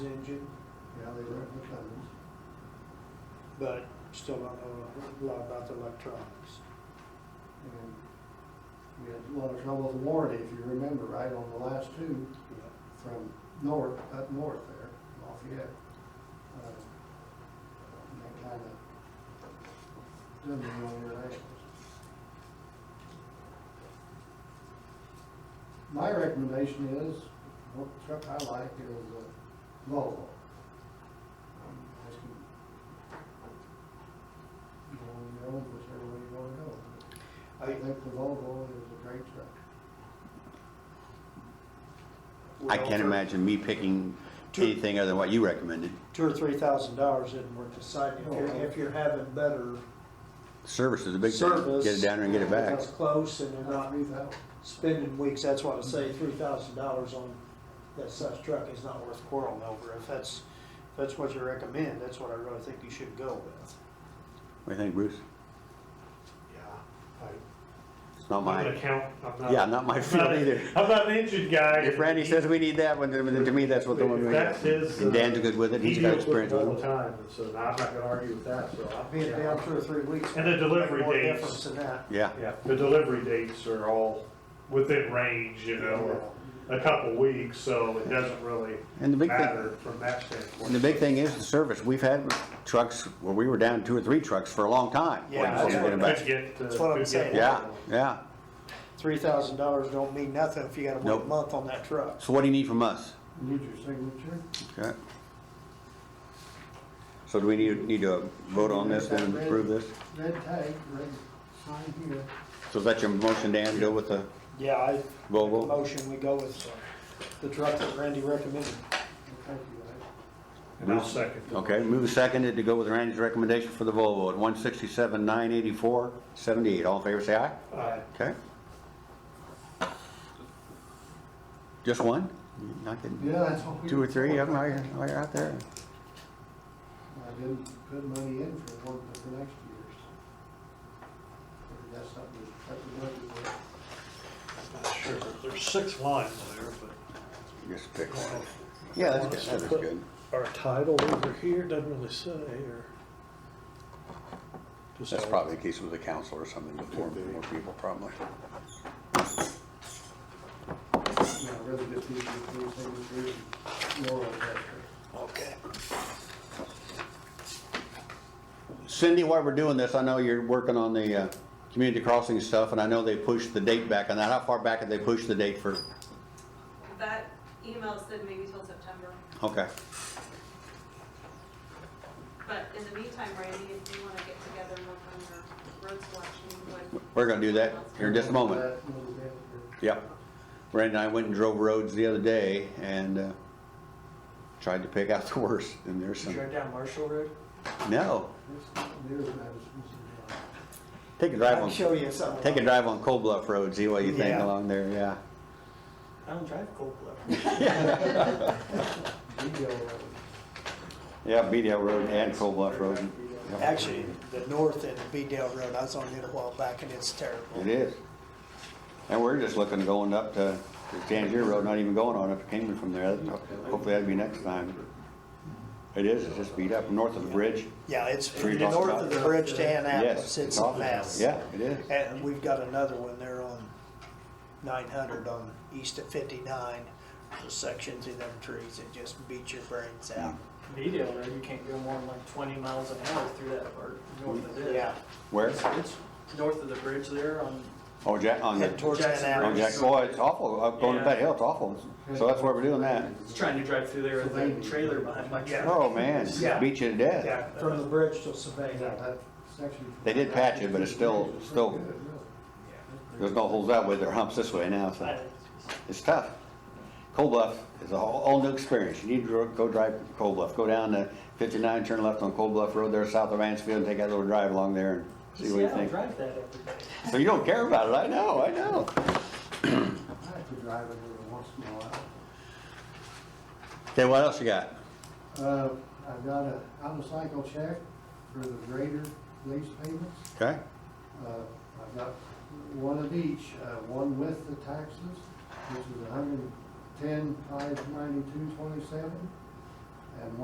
engine, Yeah, they left McClellan's. but still don't know a lot about the electronics. And we had a lot of trouble with warranty, if you remember, right, on the last two you know. from north, up north there, Lafayette. Uh, and That kind of done the wrong directions. My recommendation is, what truck I like is a Volvo. I'm asking, You know, on your own, whichever way you wanna go. I I- think the Volvo is a great truck. I well, can't for imagine me picking Two- anything other than what you recommended. Two or three thousand dollars isn't worth the site, if you're, if you're having better Service is a big thing. service. Get it down there and get it back. That's close, and they're Not not three thousand. spending weeks, that's why I say three thousand dollars on that such truck is not worth quarreling over. If that's, if that's what you recommend, that's what I really think you should go with. What do you think, Bruce? Yeah. It's not I'm not mine. gonna count, I'm not. Yeah, not my field either. I'm not an engine guy. If Randy says we need that one, then to me, that's what the one we got. That's his. And Dan's good with it. He's got experience with All the it. time, and so I'm not gonna argue with that, so. I'll Being down two or three weeks. And the delivery More dates. difference than that. Yeah. Yeah, the delivery dates are all within range, you know, a couple weeks, so it doesn't really And the big thing, matter from that standpoint. and the big thing is the service. We've had trucks where we were down two or three trucks for a long time. Yeah, waiting that's for them to get 'em Could back. get, uh, That's what I'm could get saying. Yeah, yeah. Three thousand dollars don't mean nothing if you gotta wait a Nope. month on that truck. So what do you need from us? Need your signature? Okay. So do we need, need to vote on this and approve this? Red tag, red sign here. So is that your motion, Dan, go with the Yeah, I, Volvo? motion, we go with uh, the truck that Randy recommended. Thank you, guys. And I'll second. it. Okay, move seconded to go with Randy's recommendation for the Volvo at one sixty-seven, nine eighty-four, seventy-eight. All in favor, say aye. Aye. Okay. Just one? Not kidding. Yeah, that's what we. Two or three of them while you're, while you're out there? I didn't put money in for one for the next years. Maybe That's something that's a budget. Not sure, there's six lines there, Just pick one. Yeah, that's good, that's good. but our title over here doesn't really say, or. Just That's all- probably the case with the council or something before, more people probably. Yeah, I'd rather get these three signatures and more of that. Okay. Cindy, while we're doing this, I know you're working on the, uh, community crossing stuff and I know they pushed the date back on that. How far back did they push the date for? That email said maybe till September, Okay. but in the meantime, Randy, if you wanna get together and work on your road selection, you would. We're gonna do that here in just a moment. That little bit here. Yep. Brandon and I went and drove roads the other day and uh, tried to pick out the worst, and there's some, down Marshall Road? no, It's not near as bad as Mr. John. take a I drive can on, show you something. take a drive on Cold Bluff Road, see what you think Yeah. along there, yeah. I don't drive cold blood. Video of it. Yeah, Beedale Road and Cold Bluff Road. Yep. Actually, the north end of Beedale Road, I was on it a while back and it's It terrible. is. And we're just looking going up to to Tangier Road, not even going on up to Kingman from there. Hopefully that'd be next time. It is, it's just beat up north of the bridge. Yeah, it's Three from the north blocks of the bridge to Yes. Annapolis, it's a awful. mess. Yeah, it is. And we've got another one there on nine hundred on east of fifty-nine, the section through them trees, it just beats your brains out. Beedale Road, you can't go more than like twenty miles an hour through that part, north of it. Yeah, Where? It's north of the bridge there on, Oh, Jack, on the. head towards Jackson Oh, Annapolis. Jack, boy, it's awful, up going to that hill, it's awful, so that's why we're doing that. it's trying to drive through there with that trailer behind my truck. Oh, man, beat you to death. Yeah, from the bridge to Savannah. That section. They did patch it, but it's still- still- There's no holes that way, there are humps this way now, so, it's tough. Cold Bluff is a whole, whole new experience, you need to go drive Cold Bluff, go down to fifty-nine, turn left on Cold Bluff Road there, south of Mansfield, and take that little drive along there and see what See, you I don't think. drive that every day. So you don't care about it, I know, I know. I have to drive it every once in a while. Okay, what else you got? Uh, I've got a, out of cycle check for the greater lease payments. Okay, Uh, I've got one of each, uh, one with the taxes, which is a hundred and ten, five ninety-two, twenty-seven,